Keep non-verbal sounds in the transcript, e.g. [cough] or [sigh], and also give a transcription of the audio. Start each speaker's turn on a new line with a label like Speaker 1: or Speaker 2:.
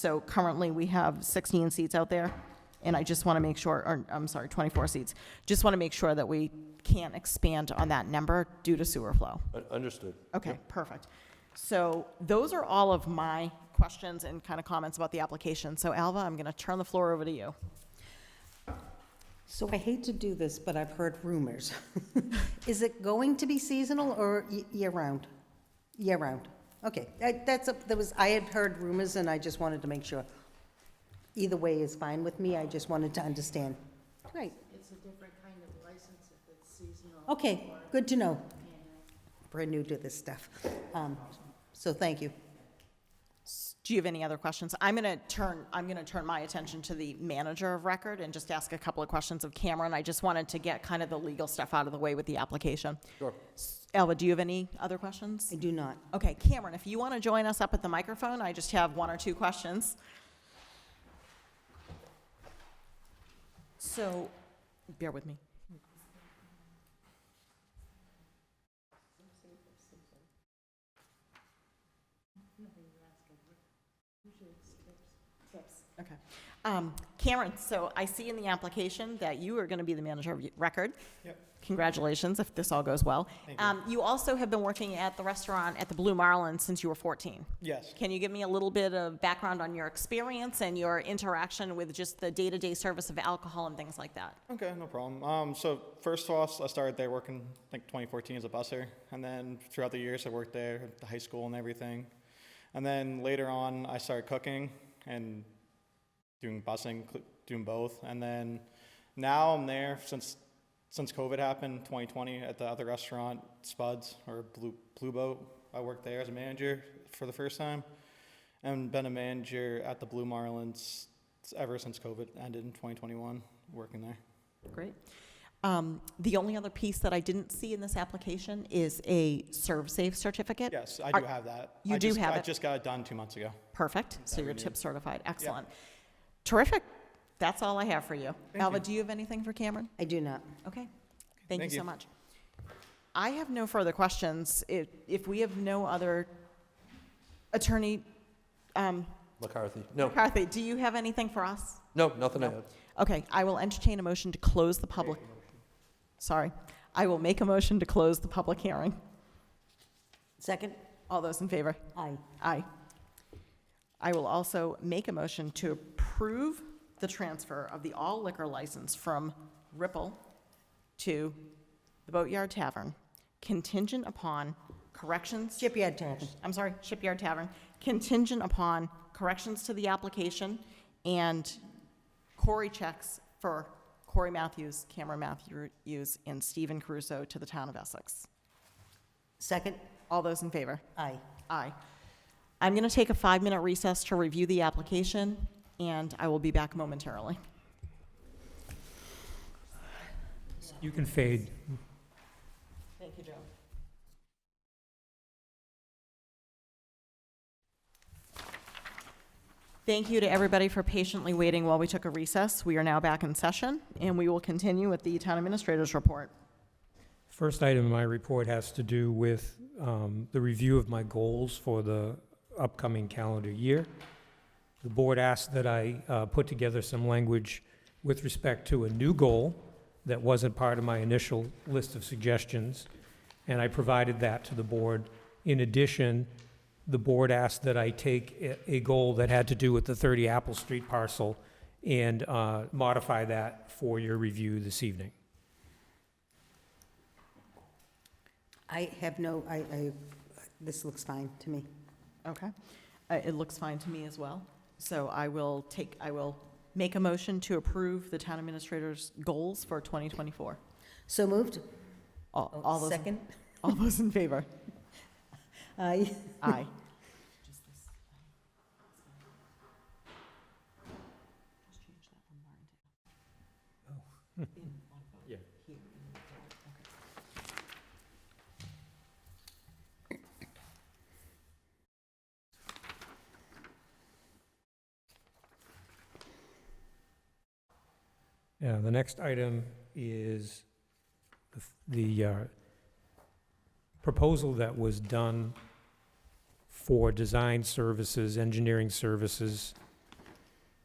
Speaker 1: So currently, we have 16 seats out there, and I just want to make sure, or, I'm sorry, 24 seats. Just want to make sure that we can't expand on that number due to sewer flow.
Speaker 2: Un- Understood.
Speaker 1: Okay, perfect. So those are all of my questions and kind of comments about the application. So Alva, I'm going to turn the floor over to you.
Speaker 3: So I hate to do this, but I've heard rumors. [laughs] Is it going to be seasonal or y- year-round? Year-round. Okay, I- that's, a- that was, I had heard rumors and I just wanted to make sure. Either way is fine with me, I just wanted to understand. Right.
Speaker 4: It's a different kind of license if it's seasonal.
Speaker 3: Okay, good to know. Brand new to this stuff. Um, So thank you.
Speaker 1: Do you have any other questions? I'm going to turn, I'm going to turn my attention to the manager of record and just ask a couple of questions of Cameron. I just wanted to get kind of the legal stuff out of the way with the application.
Speaker 2: Sure.
Speaker 1: S- Alva, do you have any other questions?
Speaker 3: I do not.
Speaker 1: Okay, Cameron, if you want to join us up at the microphone, I just have one or two questions. So, bear with me. Okay. Um, Cameron, so I see in the application that you are going to be the manager of record.
Speaker 5: Yep.
Speaker 1: Congratulations if this all goes well.
Speaker 5: Thank you.
Speaker 1: Um, you also have been working at the restaurant at the Blue Marlin since you were 14.
Speaker 5: Yes.
Speaker 1: Can you give me a little bit of background on your experience and your interaction with just the day to day service of alcohol and things like that?
Speaker 5: Okay, no problem. Um, so first off, I started there working I think 2014 as a busser, and then throughout the years I worked there at the high school and everything, and then later on I started cooking and doing busing, cl- doing both, and then now I'm there since since COVID happened 2020 at the other restaurant Spuds or Blue Blue Boat. I worked there as a manager for the first time, and been a manager at the Blue Marlins ever since COVID ended in 2021. Working there.
Speaker 1: Great. Um, the only other piece that I didn't see in this application is a serve safe certificate.
Speaker 5: Yes, I
Speaker 1: Are-
Speaker 5: do have that.
Speaker 1: you
Speaker 5: I
Speaker 1: do
Speaker 5: just,
Speaker 1: have
Speaker 5: I
Speaker 1: it.
Speaker 5: just got it done two months ago.
Speaker 1: Perfect. So
Speaker 5: that
Speaker 1: you're
Speaker 5: we need.
Speaker 1: tip certified. Excellent. Terrific. That's all I have for you. Alva, do you have anything for Cameron?
Speaker 3: I do not.
Speaker 1: Okay. Thank you
Speaker 5: Thank
Speaker 1: so
Speaker 5: you.
Speaker 1: much. I have no further questions. If, if we have no other attorney, um,
Speaker 2: McCarthy. No,
Speaker 1: Kathy, do you have anything for us?
Speaker 2: no, nothing I had.
Speaker 1: Okay, I will entertain a motion to close the public. Sorry, I will make a motion to close the public hearing.
Speaker 3: Second?
Speaker 1: All those in favor?
Speaker 3: Aye.
Speaker 1: Aye. I will also make a motion to approve the transfer of the all liquor license from Ripple to the Boatyard Tavern contingent upon corrections.
Speaker 3: Shipyard Tavern.
Speaker 1: I'm sorry, Shipyard Tavern, contingent upon corrections to the application and Corey checks for Corey Matthews, Cameron Matthews, and Stephen Caruso to the town of Essex.
Speaker 3: Second?
Speaker 1: All those in favor?
Speaker 3: Aye.
Speaker 1: Aye. I'm going to take a five-minute recess to review the application, and I will be back momentarily.
Speaker 6: You can fade.
Speaker 1: Thank you, Joe. Thank you to everybody for patiently waiting while we took a recess. We are now back in session, and we will continue with the town administrator's report.
Speaker 6: First item in my report has to do with um, the review of my goals for the upcoming calendar year. The board asked that I uh, put together some language with respect to a new goal that wasn't part of my initial list of suggestions, and I provided that to the board. In addition, the board asked that I take a- a goal that had to do with the 30 Apple Street parcel and uh, modify that for your review this evening.
Speaker 3: I have no, I, I, this looks fine to me.
Speaker 1: Okay. Uh, It looks fine to me as well. So I will take, I will make a motion to approve the town administrator's goals for 2024.
Speaker 3: So moved?
Speaker 1: All all those,
Speaker 3: Second?
Speaker 1: [laughs] all those in favor?
Speaker 3: [laughs] Aye.
Speaker 1: Aye.
Speaker 6: Yeah. Yeah, Uh, the next item is the f- the uh, proposal that was done for design services, engineering services